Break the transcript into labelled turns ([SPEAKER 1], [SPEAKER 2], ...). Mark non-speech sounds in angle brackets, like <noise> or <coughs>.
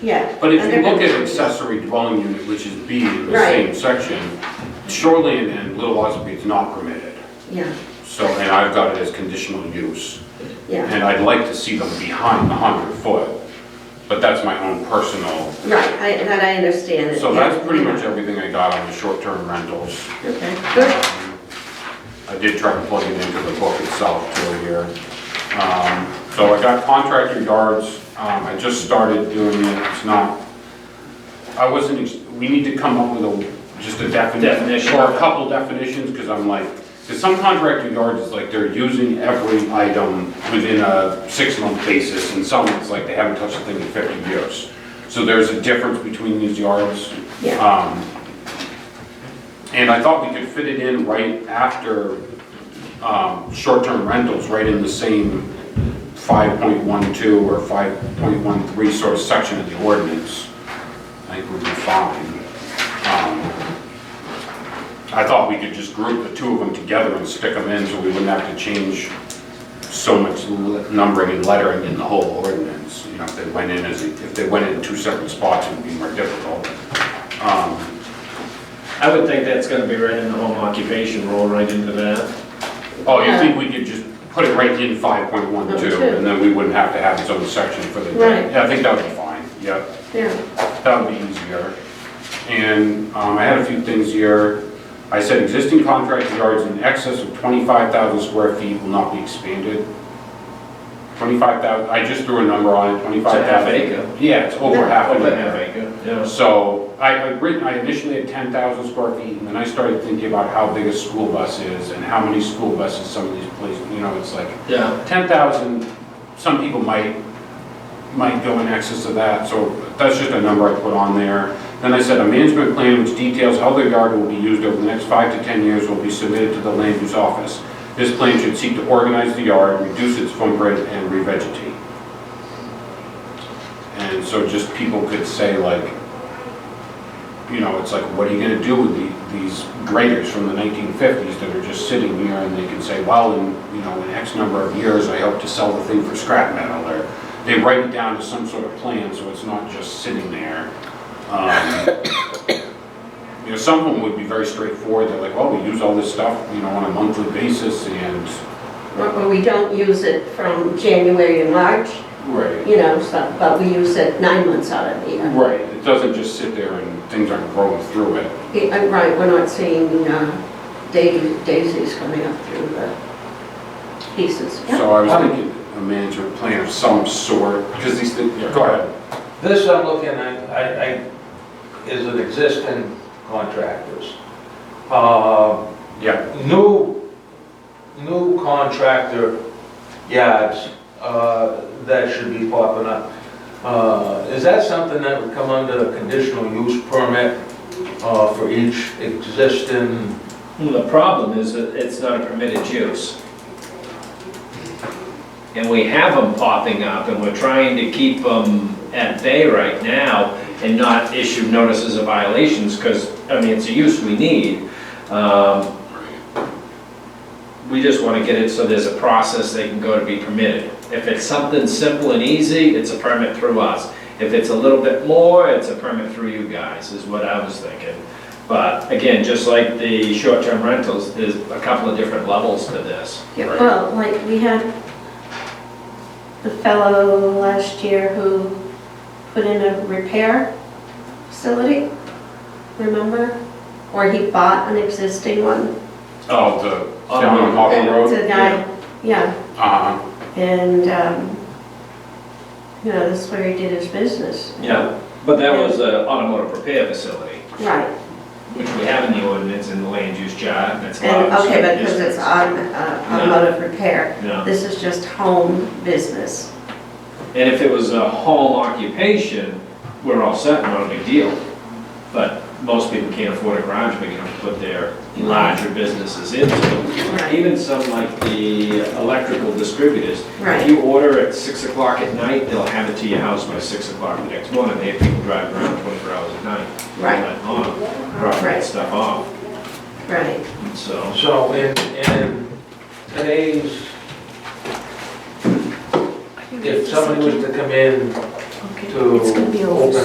[SPEAKER 1] yeah.
[SPEAKER 2] But if
[SPEAKER 1] and
[SPEAKER 2] you
[SPEAKER 1] they're
[SPEAKER 2] look at
[SPEAKER 1] gonna-
[SPEAKER 2] accessory dwelling unit, which is B in the same
[SPEAKER 1] Right.
[SPEAKER 2] section, shoreline and Little Ossipee is not permitted.
[SPEAKER 1] Yeah,
[SPEAKER 2] So, and I've got it as conditional use.
[SPEAKER 1] yeah,
[SPEAKER 2] And I'd like to see them behind the 100 foot, but that's my own personal.
[SPEAKER 1] right, I, that I understand it.
[SPEAKER 2] So
[SPEAKER 1] yeah,
[SPEAKER 2] that's pretty
[SPEAKER 1] yeah.
[SPEAKER 2] much everything I got on the short-term rentals.
[SPEAKER 1] Okay, good,
[SPEAKER 2] Um, I did try to plug it into the book itself too here. Um, So I got contractor yards, um, I just started doing it, it's not, I wasn't, ex- we need to come up with a, just a definition.
[SPEAKER 3] Definition.
[SPEAKER 2] Or a couple definitions, because I'm like, because some contractor yards is like they're using every item within a six-month basis, and some it's like they haven't touched a thing in 50 years. So there's a difference between these yards.
[SPEAKER 1] Yeah.
[SPEAKER 2] Um, and I thought we could fit it in right after um, short-term rentals, right in the same 5.12 or 5.13 sort of section of the ordinance. I think we'd be fine. Um, I thought we could just group the two of them together and stick them in so we wouldn't have to change so much l- numbering and lettering in the whole ordinance. You know, if they went in as, if they went in two separate spots, it would be more difficult. Um,
[SPEAKER 3] I would think that's gonna be right in the home occupation rule, right into that.
[SPEAKER 2] Oh, you think we could just put it right in five point one two,
[SPEAKER 1] Okay.
[SPEAKER 2] and then we wouldn't have to have its own section for the.
[SPEAKER 1] Right.
[SPEAKER 2] Yeah, I think that would be fine, yeah,
[SPEAKER 1] yeah,
[SPEAKER 2] that would be easier. And, um, I had a few things here, I said existing contract yards in excess of twenty-five thousand square feet will not be expanded. Twenty-five thousand, I just threw a number on it,
[SPEAKER 3] It's a
[SPEAKER 2] twenty-five
[SPEAKER 3] half
[SPEAKER 2] thousand.
[SPEAKER 3] acre.
[SPEAKER 2] Yeah, it's over half an
[SPEAKER 3] Over
[SPEAKER 2] acre.
[SPEAKER 3] half acre, yeah.
[SPEAKER 2] So I had written, I initially had 10,000 square feet, and then I started thinking about how big a school bus is and how many school buses some of these places, you know, it's like
[SPEAKER 3] Yeah,
[SPEAKER 2] 10,000, some people might, might go in excess of that, so that's just a number I put on there. Then I said, a management plan which details how the yard will be used over the next five to 10 years will be submitted to the land use office. This plan should seek to organize the yard, reduce its footprint, and revegetate. And so just people could say like, you know, it's like, what are you gonna do with the- these graders from the 1950s that are just sitting here and they can say, well, in, you know, in X number of years, I hope to sell the thing for scrap metal, or they write it down to some sort of plan, so it's not just sitting there. Um, <coughs> You know, some of them would be very straightforward, they're like, well, we use all this stuff, you know, on a monthly basis and.
[SPEAKER 1] Well, well, we don't use it from January to March,
[SPEAKER 2] Right.
[SPEAKER 1] you know, so, but we use it nine months out of the year.
[SPEAKER 2] Right, it doesn't just sit there and things aren't growing through it.
[SPEAKER 1] Yeah, uh, Right, we're not seeing uh, dai- daisies coming up through the pieces. Yeah.
[SPEAKER 2] So I was thinking a management plan of some sort, because these things, yeah, go ahead.
[SPEAKER 4] This I'm looking at, I, I, is an existing contractors. Uh,
[SPEAKER 2] Yeah,
[SPEAKER 4] new, new contractor yards, uh, that should be popping up. Uh, is that something that would come under a conditional use permit, uh, for each existing?
[SPEAKER 3] Well, the problem is that it's not a permitted use. And we have them popping up, and we're trying to keep them at bay right now and not issue notices of violations, because, I mean, it's a use we need. Um, We just want to get it so there's a process they can go to be permitted. If it's something simple and easy, it's a permit through us. If it's a little bit more, it's a permit through you guys, is what I was thinking. But again, just like the short-term rentals, there's a couple of different levels to this.
[SPEAKER 1] Yeah, Well, like, we had the fellow last year who put in a repair facility, remember? Or he bought an existing one.
[SPEAKER 2] oh, the,
[SPEAKER 3] Oh,
[SPEAKER 2] down on Hawthorne Road?
[SPEAKER 1] The guy, yeah,
[SPEAKER 2] Uh-huh,
[SPEAKER 1] and, um, you know, that's where he did his business.
[SPEAKER 3] Yeah, but that was an automotive repair facility,
[SPEAKER 1] Right,
[SPEAKER 3] which we have in the ordinance in the land use chart, and it's allowed.
[SPEAKER 1] and,
[SPEAKER 3] in
[SPEAKER 1] okay,
[SPEAKER 3] certain
[SPEAKER 1] but because it's
[SPEAKER 3] districts.
[SPEAKER 1] autom- uh, automotive repair,
[SPEAKER 3] No.
[SPEAKER 1] this is just home business.
[SPEAKER 3] And if it was a home occupation, we're all set, not a big deal. But most people can't afford a garage big enough to put their larger businesses into.
[SPEAKER 1] Right.
[SPEAKER 3] Even some like the electrical distributors.
[SPEAKER 1] Right.
[SPEAKER 3] If you order at six o'clock at night, they'll have it to your house by six o'clock the next morning. They have people driving around twenty-four hours a night.
[SPEAKER 1] Right.
[SPEAKER 3] Like, oh, Dropping
[SPEAKER 1] Right.
[SPEAKER 3] that stuff off,
[SPEAKER 1] Right,
[SPEAKER 3] and so.
[SPEAKER 4] So in, in today's, if somebody was to come in
[SPEAKER 1] Okay,
[SPEAKER 4] to
[SPEAKER 1] it's gonna be over
[SPEAKER 4] open